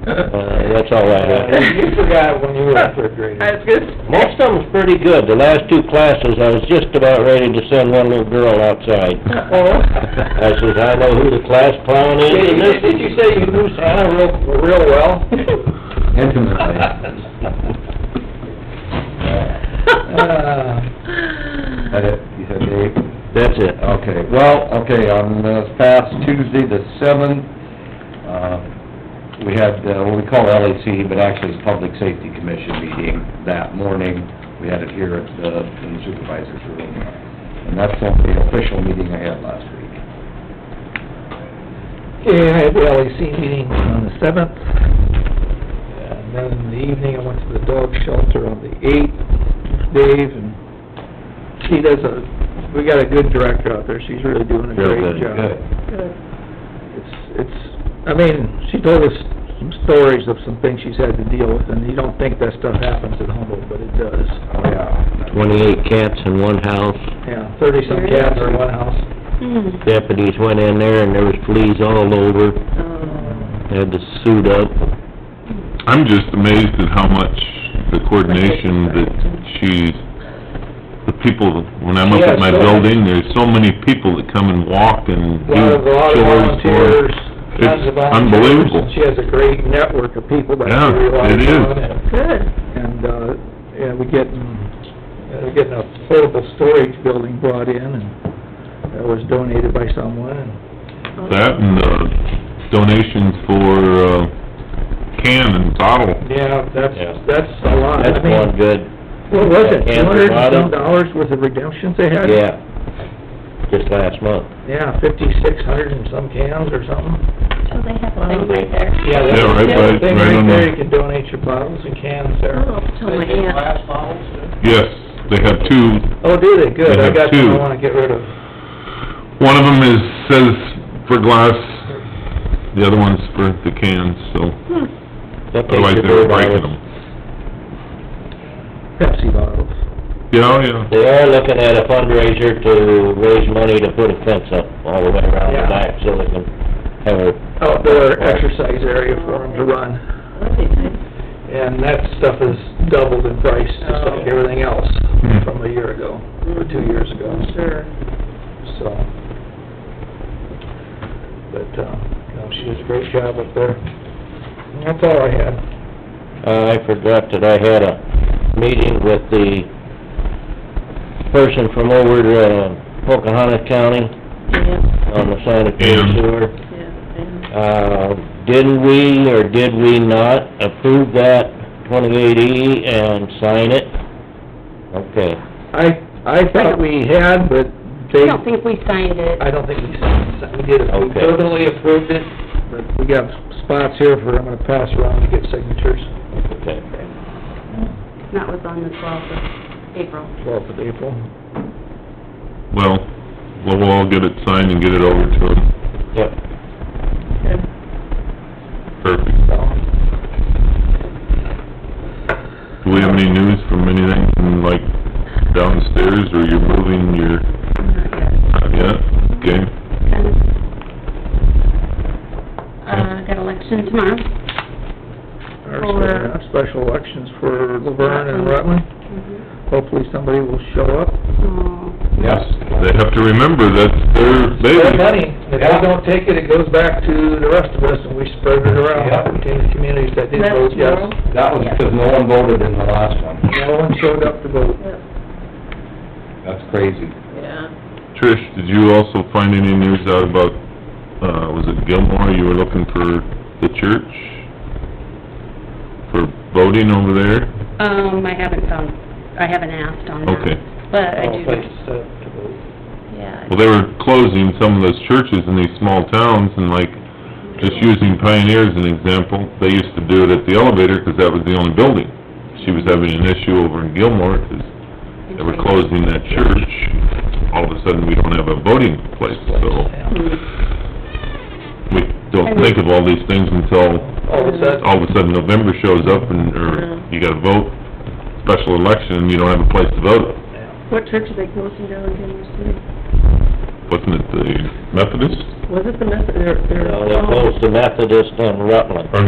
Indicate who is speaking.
Speaker 1: Uh, that's all I have.
Speaker 2: You forgot when you were a third grader.
Speaker 3: I was gonna say.
Speaker 1: Most of them's pretty good. The last two classes, I was just about ready to send one little girl outside.
Speaker 3: Uh-oh.
Speaker 1: I says, I know who the class clown is
Speaker 2: Oh. Did
Speaker 1: in
Speaker 2: you-
Speaker 1: this.
Speaker 2: did you say you knew Santa real, real well? Uh,
Speaker 4: Intimately. That it, you said Dave?
Speaker 1: That's it.
Speaker 4: Okay, well, okay, on uh past Tuesday, the seventh, uh, we had, uh, what we call LAC, but actually it's Public Safety Commission meeting that morning. We had it here at the in the supervisor's room. And that's the only official meeting I had last week.
Speaker 2: Yeah, I had the LEC meeting on the seventh. And then in the evening, I went to the dog shelter on the eighth, Dave, and she does a, we got a good director out there, she's really doing a
Speaker 1: Real
Speaker 2: great
Speaker 1: good.
Speaker 2: job.
Speaker 4: Good.
Speaker 2: It's, it's, I mean, she told us some stories of some things she's had to deal with, and you don't think that stuff happens at Humboldt, but it does.
Speaker 4: Oh, yeah.
Speaker 1: Twenty-eight cats in one house.
Speaker 2: Yeah, thirty-some cats in one house.
Speaker 1: Deputies went in there and there was fleas all over. They Had to suit up.
Speaker 5: I'm just amazed at how much the coordination that she's, the people, when I'm up at my
Speaker 2: Yeah, so-
Speaker 5: building, there's so many people that come and walk and
Speaker 2: A
Speaker 5: do
Speaker 2: lot of,
Speaker 5: chores
Speaker 2: a lot of
Speaker 5: for...
Speaker 2: volunteers, tons of
Speaker 5: It's
Speaker 2: volunteers.
Speaker 5: unbelievable.
Speaker 2: and She has a great network of people that
Speaker 5: Yeah,
Speaker 2: she relies
Speaker 5: it is.
Speaker 2: on.
Speaker 3: Good.
Speaker 2: And, uh, yeah, we getting, uh, we're getting a portable storage building brought in, and that was donated by someone, and
Speaker 5: That and the donations for, uh, can and bottle.
Speaker 2: Yeah, that's,
Speaker 1: Yeah.
Speaker 2: that's a lot. I
Speaker 1: That's
Speaker 2: mean,
Speaker 1: one good,
Speaker 2: What was it,
Speaker 1: Yeah,
Speaker 2: two hundred and some
Speaker 1: bottom.
Speaker 2: dollars worth of redemptions they had?
Speaker 1: yeah. Just last month.
Speaker 2: Yeah, fifty-six hundred and some cans or something.
Speaker 6: So they have a thing right there.
Speaker 2: Yeah, that's
Speaker 5: Yeah, right
Speaker 2: that's
Speaker 5: by-
Speaker 2: the thing
Speaker 5: right
Speaker 2: right
Speaker 5: on the-
Speaker 2: there, you can donate your bottles and cans there.
Speaker 6: Oh, I'll tell my aunt.
Speaker 5: Yes, they have two.
Speaker 2: Oh, do they? Good,
Speaker 5: They
Speaker 2: I
Speaker 5: have
Speaker 2: got some I
Speaker 5: two.
Speaker 2: wanna get rid of.
Speaker 5: One of them is, says for glass, the other one's for the cans, so
Speaker 1: That takes
Speaker 5: otherwise
Speaker 1: the
Speaker 5: they were
Speaker 1: bird out of
Speaker 5: breaking
Speaker 1: it.
Speaker 5: them.
Speaker 2: Pepsi bottles.
Speaker 5: Yeah, oh, yeah.
Speaker 1: They are looking at a fundraiser to raise money to put a fence up all the way around
Speaker 2: Yeah.
Speaker 1: the back so they can have a...
Speaker 2: Outdoor Oh, exercise area for them to run,
Speaker 6: That'd be nice.
Speaker 2: and that stuff has doubled in price, just like everything else
Speaker 5: Hmm.
Speaker 2: from a year ago, or two years ago.
Speaker 6: Sure.
Speaker 2: so. uh, But, uh, no, she does a great job up there. And That's all I had.
Speaker 1: Uh, I forgot that I had a meeting with the person from over to uh, Pocahontas County
Speaker 6: Yeah,
Speaker 1: on the sanitary
Speaker 5: Yeah.
Speaker 1: sewer.
Speaker 6: yeah, and
Speaker 1: Uh, didn't we or did we not approve that twenty-eight E and sign it? Okay.
Speaker 2: I, I thought we had, but
Speaker 6: I
Speaker 2: they,
Speaker 6: don't think we signed it.
Speaker 2: I don't think we signed, it. we did, it. we
Speaker 1: Okay.
Speaker 2: totally approved it, but we got spots here for, I'm gonna pass around to get signatures,
Speaker 1: Okay.
Speaker 6: That was on the twelfth of April.
Speaker 2: twelfth of April.
Speaker 5: Well, we'll we'll all get it signed and get it over to him.
Speaker 1: Yep.
Speaker 5: Perfect.
Speaker 2: So,
Speaker 5: Do we have any news from anything from like downstairs or you're moving your,
Speaker 6: Not yet.
Speaker 5: not yet? Okay.
Speaker 6: Kind of. Uh, got election tomorrow.
Speaker 2: our
Speaker 6: For-
Speaker 2: special elections for Laverne and Rutland,
Speaker 6: Mm-hmm.
Speaker 2: hopefully somebody will show up.
Speaker 6: Oh,
Speaker 5: Yes. They have to remember that's their
Speaker 2: Their
Speaker 5: baby.
Speaker 2: money, if they don't take it, it goes back to the rest of us, and we spread it around between the communities that did
Speaker 3: That's
Speaker 2: vote yes.
Speaker 3: tomorrow?
Speaker 4: That was because no one voted in the last one.
Speaker 2: No one showed up to vote.
Speaker 4: That's crazy.
Speaker 3: Yeah.
Speaker 5: Trish, did you also find any news out about, uh, was it Gilmore, you were looking for the church? For voting over there?
Speaker 6: Um, I haven't found, I haven't asked on that.
Speaker 5: Okay.
Speaker 6: But I do,
Speaker 2: uh,
Speaker 6: yeah.
Speaker 5: Well, they were closing some of those churches in these small towns and like, just using Pioneer as an example, they used to do it at the elevator because that was the only building. She was having an issue over in Gilmore because they were closing that church. All of a sudden, we don't have a voting place, so
Speaker 6: Hmm.
Speaker 5: we don't think of all these things until
Speaker 2: All of a sudden,
Speaker 5: all of a sudden November shows up and, or you gotta vote, special election, and you don't have a place to vote.
Speaker 3: What church are they closing down in Kansas City?
Speaker 5: Wasn't it the Methodist?
Speaker 3: Was it the Methodist, they're, they're...
Speaker 1: Well, they closed the Methodist on Rutland.
Speaker 5: Or